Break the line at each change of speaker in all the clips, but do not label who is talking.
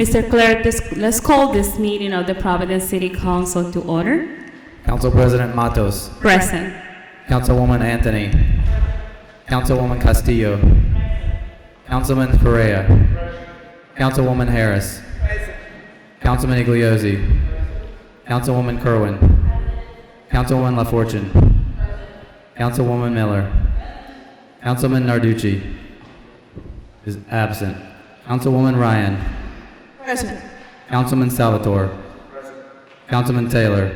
Mr. Clerk, this- let's call this meeting of the Providence City Council to order.
Council President Matos.
Present.
Councilwoman Anthony. Councilwoman Castillo. Councilman Correa. Councilwoman Harris. Councilman Igliozzi. Councilwoman Kerwin. Councilwoman LaFortune. Councilwoman Miller. Councilman Narducci is absent. Councilwoman Ryan.
Present.
Councilman Salvatore. Councilman Taylor.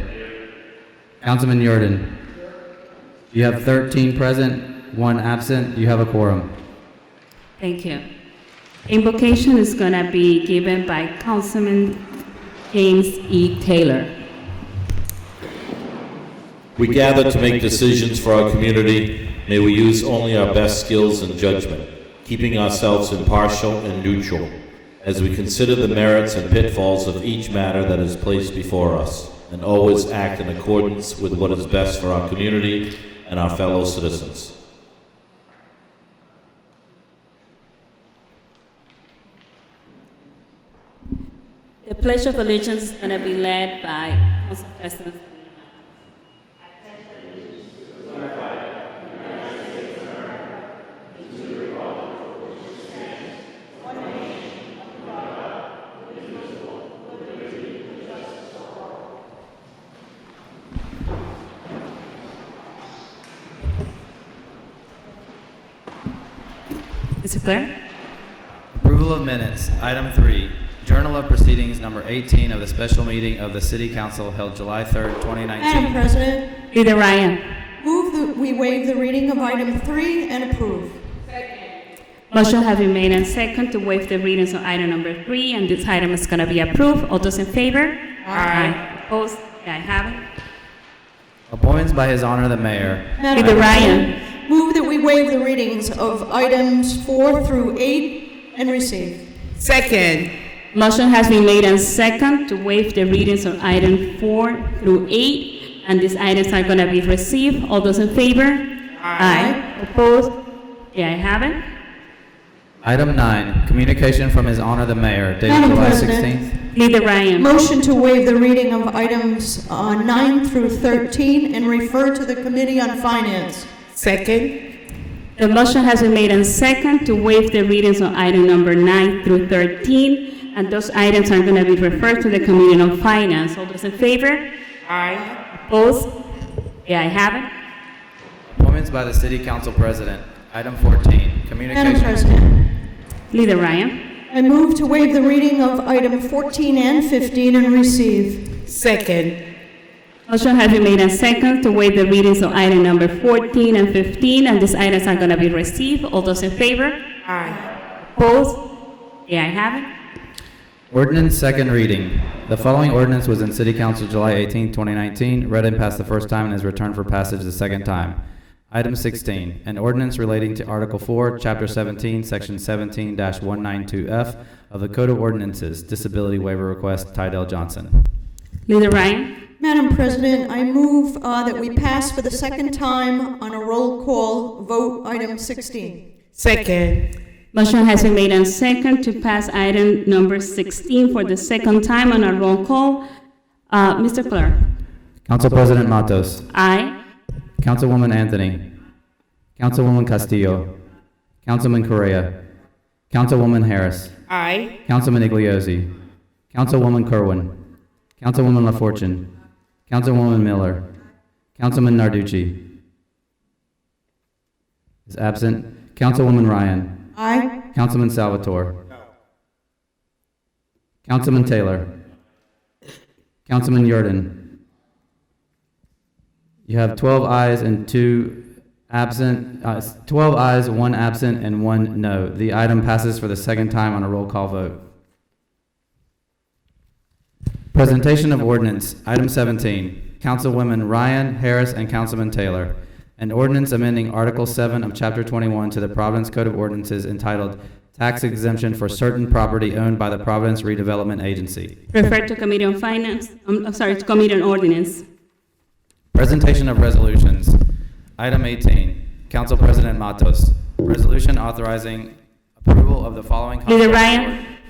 Councilman Yurden. You have 13 present, one absent. You have a quorum.
Thank you. Invocation is going to be given by Councilman James E. Taylor.
We gather to make decisions for our community. May we use only our best skills and judgment, keeping ourselves impartial and neutral as we consider the merits and pitfalls of each matter that is placed before us, and always act in accordance with what is best for our community and our fellow citizens.
The Pledge of Allegiance is going to be led by Council President. Mr. Clerk?
Approval of minutes, item three, Journal of Proceedings, number 18 of the special meeting of the City Council held July 3rd, 2019.
Madam President,
Leader Ryan?
move that we waive the reading of item three and approve.
Motion has been made and second to waive the readings on item number three, and this item is going to be approved. All those in favor? Aye. Opposed? The ayes have it.
Appointments by His Honor the Mayor.
Madam
Leader
President, Move that we waive the readings of items four through eight and receive.
Second.
Motion has been made and second to waive the readings on item four through eight, and these items are going to be received. All those in favor? Aye. Opposed? The ayes have it.
Item nine, Communication from His Honor the Mayor dated
Madam
July
President.
16th.
Leader Ryan?
Motion to waive the reading of items uh, nine through 13 and refer to the Committee on Finance.
Second.
The motion has been made and second to waive the readings on item number nine through 13, and those items are going to be referred to the Committee on Finance. All those in favor?
Aye.
Opposed? The ayes have it.
Appointments by the City Council President, item 14, Communication.
Madam President,
Leader Ryan.
I move to waive the reading of item 14 and 15 and receive.
Second.
Motion has been made and second to waive the readings of item number 14 and 15, and these items are going to be received. All those in favor?
Aye.
Opposed? The ayes have it.
Ordinance second reading. The following ordinance was in City Council July 18, 2019, read and passed the first time and is returned for passage the second time. Item 16, an ordinance relating to Article 4, Chapter 17, Section 17-192F of the Code of Ordinances, Disability Waiver Request, Tydell Johnson.
Leader Ryan.
Madam President, I move uh, that we pass for the second time on a roll call vote item 16.
Second.
Motion has been made and second to pass item number 16 for the second time on a roll call. Uh, Mr. Clerk?
Council President Matos.
Aye.
Councilwoman Anthony. Councilwoman Castillo. Councilman Correa. Councilwoman Harris.
Aye.
Councilman Igliozzi. Councilwoman Kerwin. Councilwoman LaFortune. Councilwoman Miller. Councilman Narducci. Is absent. Councilwoman Ryan.
Aye.
Councilman Salvatore. Councilman Taylor. Councilman Yurden. You have 12 ayes and two absent, uh, 12 ayes, one absent, and one no. The item passes for the second time on a roll call vote. Presentation of ordinance, item 17, Councilwomen Ryan, Harris, and Councilman Taylor. An ordinance amending Article 7 of Chapter 21 to the Providence Code of Ordinances entitled Tax Exemption for Certain Property Owned by the Providence Redevelopment Agency.
Refer to Committee on Finance, I'm I'm sorry, to Committee on Ordinance.
Presentation of resolutions. Item 18, Council President Matos. Resolution authorizing approval of the following.
Leader
contract
Ryan.